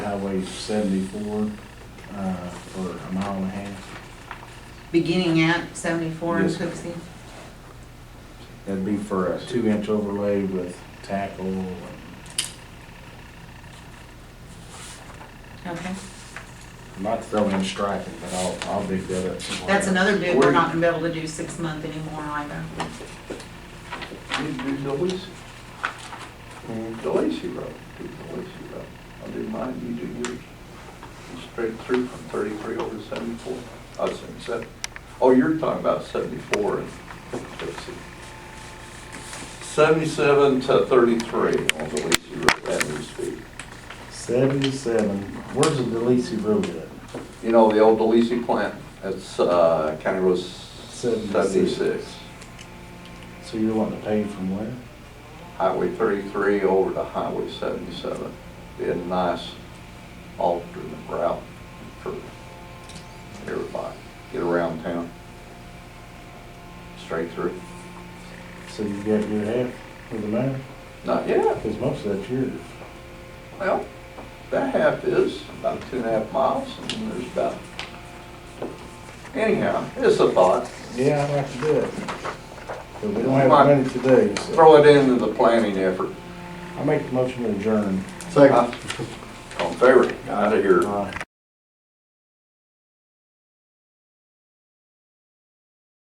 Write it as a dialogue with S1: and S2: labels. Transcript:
S1: Highway seventy-four, uh, for a mile and a half.
S2: beginning at seventy-four in
S1: Yes.
S2: Cooksey?
S1: That'd be for a two-inch overlay with tackle and
S2: Okay,
S1: not throwing striping, but I'll, I'll dig that up somewhere.
S2: that's another bid we're not gonna be able to do six month anymore either.
S3: Need to do Delisi, Delisi Road, do Delisi Road. I'll do mine, you do yours. Straight through from thirty-three over to seventy-four, I was saying seven. Oh, you're talking about seventy-four and, let's see. Seventy-seven to thirty-three on Delisi Road, that new speed.
S1: Seventy-seven, where's the Delisi Road at?
S3: You know, the old Delisi plant, that's, uh, County Road
S1: Seventy-six.
S3: seventy-six.
S1: So you're wanting to pay from where?
S3: Highway thirty-three over to Highway seventy-seven. Be a nice alternate route for everybody, get around town. Straight through.
S1: So you got your half of the matter?
S3: Not yet,
S1: Because most of that's yours.
S3: well, that half is about two and a half miles, and then there's about, anyhow, it's a thought.
S1: Yeah, I'd like to do it. But we don't have the money today, so.
S3: Throw it into the planning effort.
S1: I make the motion to adjourn.
S3: Second. On favor, out of here.
S1: Aye.